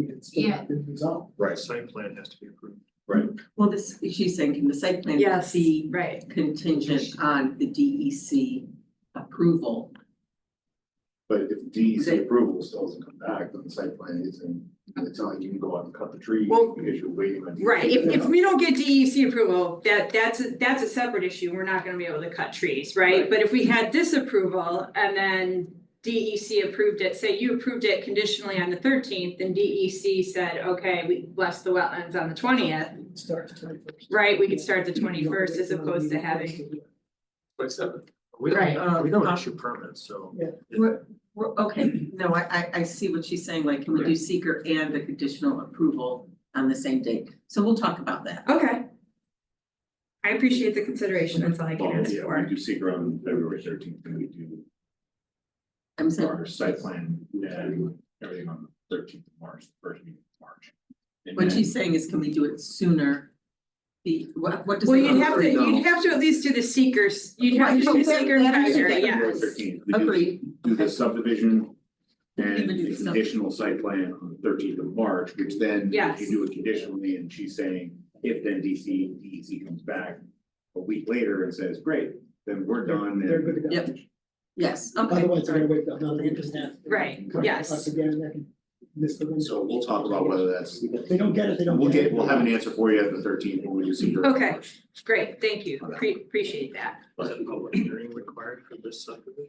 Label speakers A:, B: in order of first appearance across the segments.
A: It's still
B: Yeah.
A: different zone.
C: Right,
D: Site plan has to be approved.
E: Well, this, she's saying, can the site plan
F: Yes.
E: be
F: Right.
E: contingent on the DEC approval?
C: but if DEC approval still doesn't come back, then the site plan isn't, it's not like you can go out and cut the tree
F: Well-
C: because you're waiting on. DEC.
F: Right, if, if we don't get DEC approval, that, that's, a- that's a separate issue, we're not gonna be able to cut trees, right?
E: Right.
F: But if we had this approval and then DEC approved it, say you approved it conditionally on the thirteenth, and DEC said, okay, we bless the wetlands on the twentieth,
A: It Starts twenty first.
F: right, we could start the twenty-first as opposed to having,
D: Twenty-seven. We don't, um,
E: Right.
D: we don't issue permits, so.
A: Yeah.
D: it-
E: Well, okay, no, I, I, I see what she's saying, like, can we do seeker and the conditional approval on the same date? So we'll talk about that.
F: okay. I appreciate the consideration, that's all I can
C: Well,
F: ask
C: yeah, we
F: for.
C: do secret on February thirteenth, and we do
E: I'm sorry,
C: our site plan, and everything on the thirteenth of March, the first meeting of March. And
E: what
C: then-
E: she's saying is, can we do it sooner? The, what, what does?
F: Well,
E: the
F: you'd have to,
E: authority
F: you'd
E: go?
F: have to at least do the seekers, you'd have to do the
E: Right,
F: seeker
E: that- that is
F: factor,
E: okay.
F: yeah.
C: February 13th. We do-
E: Agreed.
C: Do the subdivision
E: Even
C: and
E: do the
C: the
E: sub-
C: conditional site plan on the thirteenth of March, which then if
F: Yes.
C: you do it conditionally, and she's saying, if then DC, DEC E comes back a week later and says, great, then we're done and.
A: They're good to go.
E: Yep. Yes, okay.
A: Otherwise, they're
E: all right.
A: gonna wait till another interest now.
F: Right,
A: Come
F: yes.
A: Up again, and they can miss the window.
C: So we'll talk about whether that's,
A: If they don't get it, they don't
C: we'll
A: get
C: get,
A: it.
C: we'll have an answer for you at the thirteenth when we do secret.
F: Okay. Great, thank you, Pre- appreciate that.
D: Was it public hearing required for this subdivision?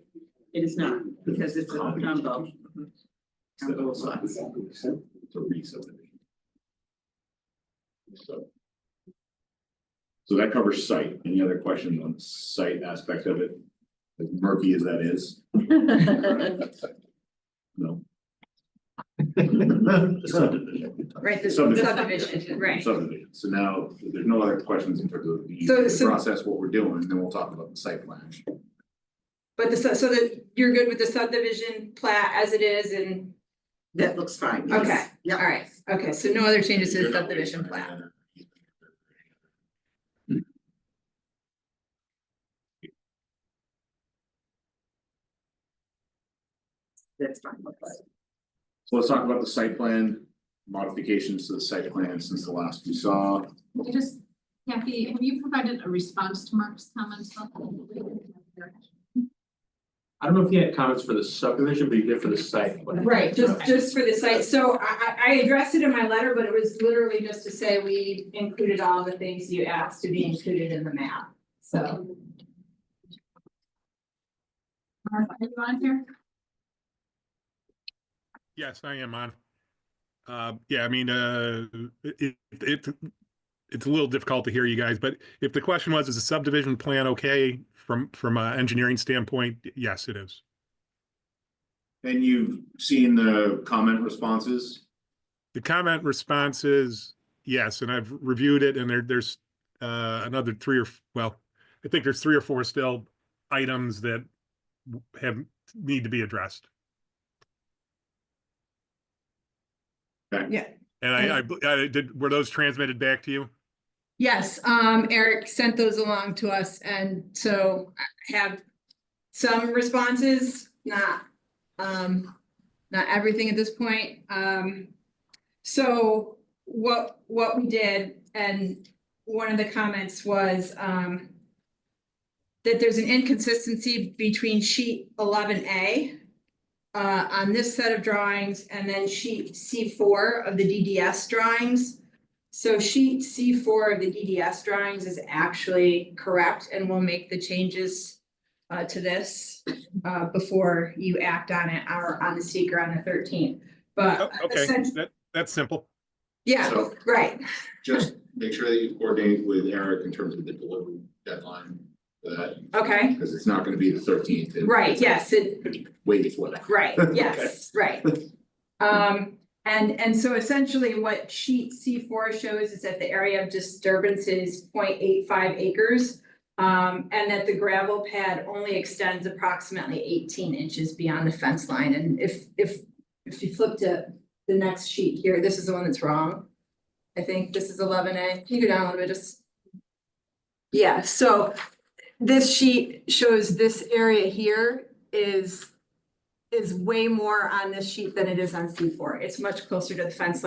E: It is not, because it's a combo. Combo of lots.
C: So it's a re-subdivision. So. So that covers site. Any other questions on site aspect of it? As murky as that is, no.
D: The subdivision.
F: Right, this
C: Subdivision.
F: subdivision, right.
C: Subdivision. So now, if there's no other questions in terms of the
F: So-
C: the
F: so-
C: process, what we're doing, then we'll talk about the site plan.
F: But the, su- so that you're good with the subdivision plat as it is and,
E: That looks fine, yes.
F: okay, all
E: Yeah,
F: right, okay, so no other changes to
C: You're
F: the
C: not
F: subdivision
C: waiting for any
F: plat.
C: other-
E: that's fine.
C: So let's talk about the site plan modifications to the site plan since the last we saw.
B: I just, Kathy, have you provided a response to Mark's comments?
G: I don't know if he had comments for the subdivision, but he did for the site. plan.
F: Right, just, just for the site, so I, I, I addressed it in my letter, but it was literally just to say we included all the things you asked to be included in the map, so.
B: Mark, are you on here?
H: Yes, I am on. Uh, yeah, I mean, uh, it, it, it- it's a little difficult to hear you guys, but if the question was, is the subdivision plan okay from, from an engineering standpoint? Yes, it is.
C: And you've seen the comment responses?
H: The comment response is yes, and I've reviewed it and there, there's, uh, another three or, f- well, I think there's three or four still items that have, need to be addressed.
C: Okay.
F: Yeah.
H: And I, I, bl- I did, were those transmitted back to you?
F: Yes, um, Eric sent those along to us and so I have some responses, not, um, not everything at this point. Um, so what, what we did and one of the comments was, um, that there's an inconsistency between sheet eleven A uh, on this set of drawings and then sheet C four of the DDS drawings. So sheet C four of the DDS drawings is actually correct and we'll make the changes uh, to this uh, before you act on it or on the seeker on the thirteenth.
H: Oh,
F: But
H: Okay,
F: essen-
H: that, that's simple.
F: yeah,
C: So
F: right,
C: just make sure that you coordinate with Eric in terms of the delivery deadline for that,
F: okay,
C: because it's not gonna be the thirteenth.
F: right, yes, it,
C: Way before that.
F: Right, yes, right. Um, and, and so essentially what sheet C four shows is that the area of disturbance is 0.85 acres. Um, and that the gravel pad only extends approximately eighteen inches beyond the fence line. And if, if, if you flip to the next sheet here, this is the one that's wrong. I think this is eleven A. Can you go down a little bit, just? Yeah, so this sheet shows this area here is is way more on this sheet than it is on C four. It's much closer to the fence line.